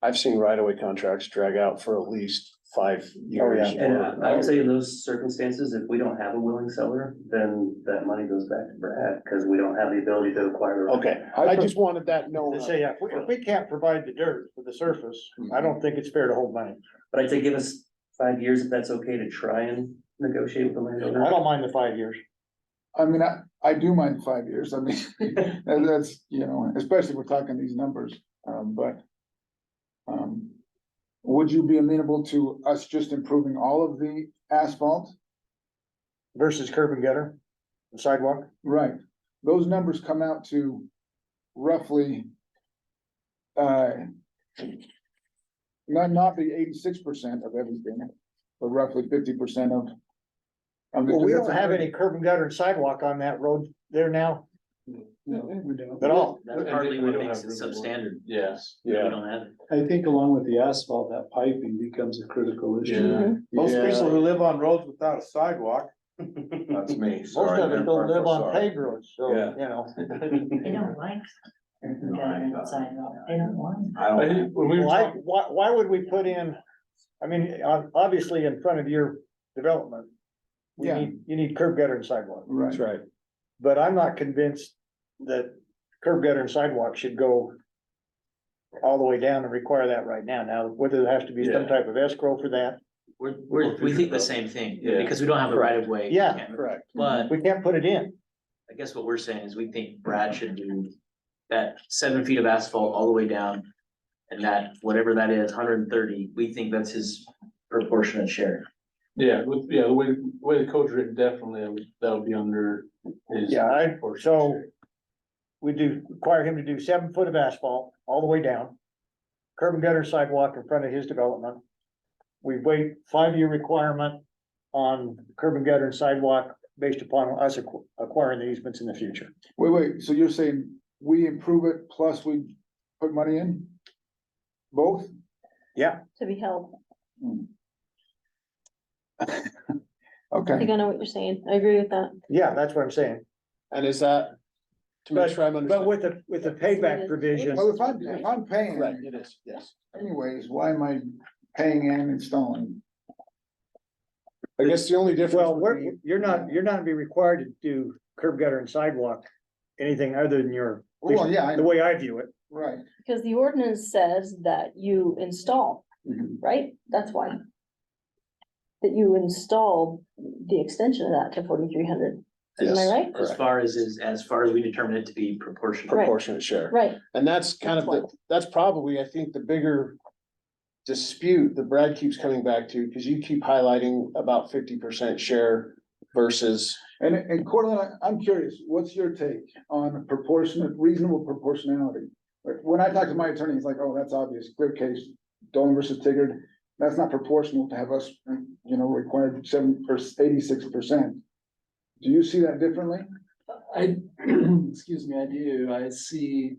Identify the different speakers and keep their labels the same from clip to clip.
Speaker 1: I've seen right away contracts drag out for at least five years.
Speaker 2: And uh,
Speaker 1: or-
Speaker 2: I would say in those circumstances, if we don't have a willing seller, then that money goes back to Brad, because we don't have the ability to acquire. the right.
Speaker 1: Okay, I just wanted that known.
Speaker 3: They say, yeah, if we, if we can't provide the dirt for the surface, I don't think it's fair to hold money.
Speaker 2: But I'd say give us five years, if that's okay to try and negotiate with the landowner.
Speaker 3: I don't mind the five years.
Speaker 4: I mean, I, I do mind five years, I mean, and that's, you know, especially if we're talking these numbers, um, but. Um, would you be amenable to us just improving all of the asphalt?
Speaker 3: versus curb and gutter, the sidewalk.
Speaker 4: Right, those numbers come out to roughly. Uh. Not, not the eighty-six percent of everything, but roughly fifty percent of. of the-
Speaker 3: Well, we don't have any curb and gutter and sidewalk on that road there now
Speaker 4: No, we don't.
Speaker 3: at all.
Speaker 2: That's partly what makes it substandard.
Speaker 1: Yes,
Speaker 2: We
Speaker 1: yeah.
Speaker 2: don't have it.
Speaker 5: I think along with the asphalt, that piping becomes a critical issue.
Speaker 1: Mm-hmm. Most
Speaker 6: who live on roads without a sidewalk.
Speaker 1: That's me,
Speaker 3: Most
Speaker 6: Sorry,
Speaker 3: of us
Speaker 6: man,
Speaker 3: don't
Speaker 6: I'm so
Speaker 3: live on
Speaker 6: sorry.
Speaker 3: paved roads, so,
Speaker 1: Yeah.
Speaker 3: you know.
Speaker 7: They don't like. Government sidewalk, they don't want. it.
Speaker 6: I don't,
Speaker 1: when we
Speaker 3: Why, why, why would we put in, I mean, ob- obviously in front of your development. We
Speaker 4: Yeah.
Speaker 3: need, you need curb gutter and sidewalk,
Speaker 4: Right,
Speaker 1: That's right.
Speaker 3: but I'm not convinced that curb gutter and sidewalk should go. All the way down and require that right now. Now, whether there has to be some
Speaker 1: Yeah.
Speaker 3: type of escrow for that,
Speaker 2: We're, we're, we think the same thing,
Speaker 1: Yeah.
Speaker 2: because we don't have a right of way.
Speaker 3: Yeah,
Speaker 2: can't-
Speaker 1: correct.
Speaker 2: But
Speaker 3: we can't put it in.
Speaker 2: I guess what we're saying is we think Brad should do that seven feet of asphalt all the way down. And that, whatever that is, hundred and thirty, we think that's his proportionate share.
Speaker 6: yeah, with, yeah, the way, the way the code's written, definitely, I would- that would be under his.
Speaker 3: Yeah, I,
Speaker 6: proportion.
Speaker 3: so. We do require him to do seven foot of asphalt all the way down. Curb and gutter sidewalk in front of his development. We wait five year requirement on curb and gutter and sidewalk based upon us acqu- acquiring the easements in the future.
Speaker 4: wait, wait, so you're saying we improve it plus we put money in? Both?
Speaker 8: to be held. I
Speaker 4: Okay,
Speaker 8: think I know what you're saying. I agree with that.
Speaker 3: Yeah, that's what I'm saying,
Speaker 1: And is that, to make sure I'm
Speaker 3: but
Speaker 1: understanding?
Speaker 3: with the, with the payback provision,
Speaker 4: well, if I'm, if I'm
Speaker 1: Right,
Speaker 4: paying
Speaker 1: it is, yes.
Speaker 4: anyways, why am I paying and installing?
Speaker 1: I guess the only difference.
Speaker 3: well,
Speaker 1: would
Speaker 3: we're,
Speaker 1: be-
Speaker 3: you're not, you're not gonna be required to do curb gutter and sidewalk. Anything other than your,
Speaker 4: Well, yeah, I,
Speaker 3: the way I view it,
Speaker 4: right,
Speaker 8: Because the ordinance says that you install,
Speaker 4: Mhm.
Speaker 8: right? That's why. That you install the extension of that to forty-three hundred. Am I
Speaker 1: Yes,
Speaker 8: right?
Speaker 2: As
Speaker 1: Correct,
Speaker 2: far as is, as far as we determine it to be proportional.
Speaker 8: Right.
Speaker 1: proportionate share.
Speaker 8: Right,
Speaker 1: And that's kind of, the that's probably, I think, the bigger dispute that Brad keeps coming back to, because you keep highlighting about fifty percent share versus,
Speaker 4: and, and Cortland, I- I'm curious, what's your take on proportionate, reasonable proportionality? Like, When I talk to my attorney, he's like, oh, that's obvious, clear case, Dolan versus Tigard, that's not proportional to have us, you know, required seven, eighty-six percent. Do you see that differently?
Speaker 9: I, excuse me, I do, I see.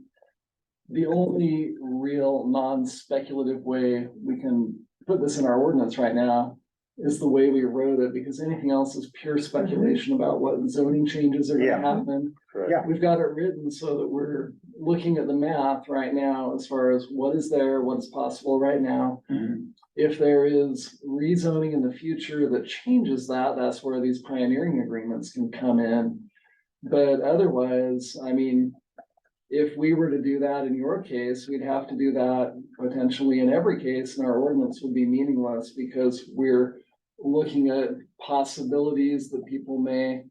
Speaker 9: The only real non-speculative way we can put this in our ordinance right now. Is the way we wrote it, because anything else is pure speculation about what zoning changes are
Speaker 3: Yeah.
Speaker 9: gonna happen.
Speaker 1: Correct.
Speaker 3: Yeah.
Speaker 9: We've got it written so that we're looking at the math right now as far as what is there, what's possible right now. If there is rezoning in the future that changes that, that's where these pioneering agreements can come in. But otherwise, I mean, if we were to do that in your case, we'd have to do that potentially in every case, and our ordinance would be meaningless because we're looking at possibilities that people may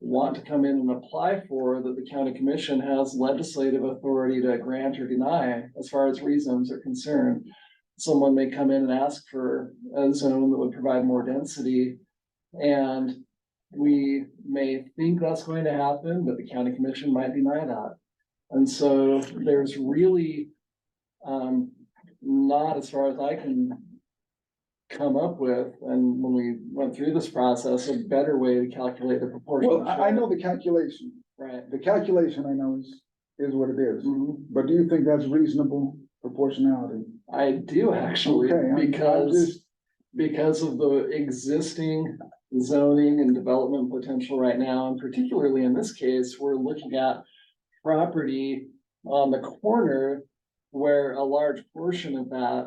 Speaker 9: want to come in and apply for that the county commission has legislative authority to grant or deny as far as reasons are concerned. Someone may come in and ask for a zone that would provide more density. And we may think that's going to happen, but the county commission might deny that. And so there's really um, not as far as I can come up with, and when we went through this process, a better way to calculate the proportion.
Speaker 4: Well, I, I know the calculation,
Speaker 9: Right.
Speaker 4: the calculation I know is, is what it is,
Speaker 9: Mhm.
Speaker 4: but do you think that's reasonable proportionality?
Speaker 9: I do actually,
Speaker 4: Okay, I'm- I'm
Speaker 9: because,
Speaker 4: just-
Speaker 9: because of the existing zoning and development potential right now, and particularly in this case, we're looking at property on the corner where a large portion of that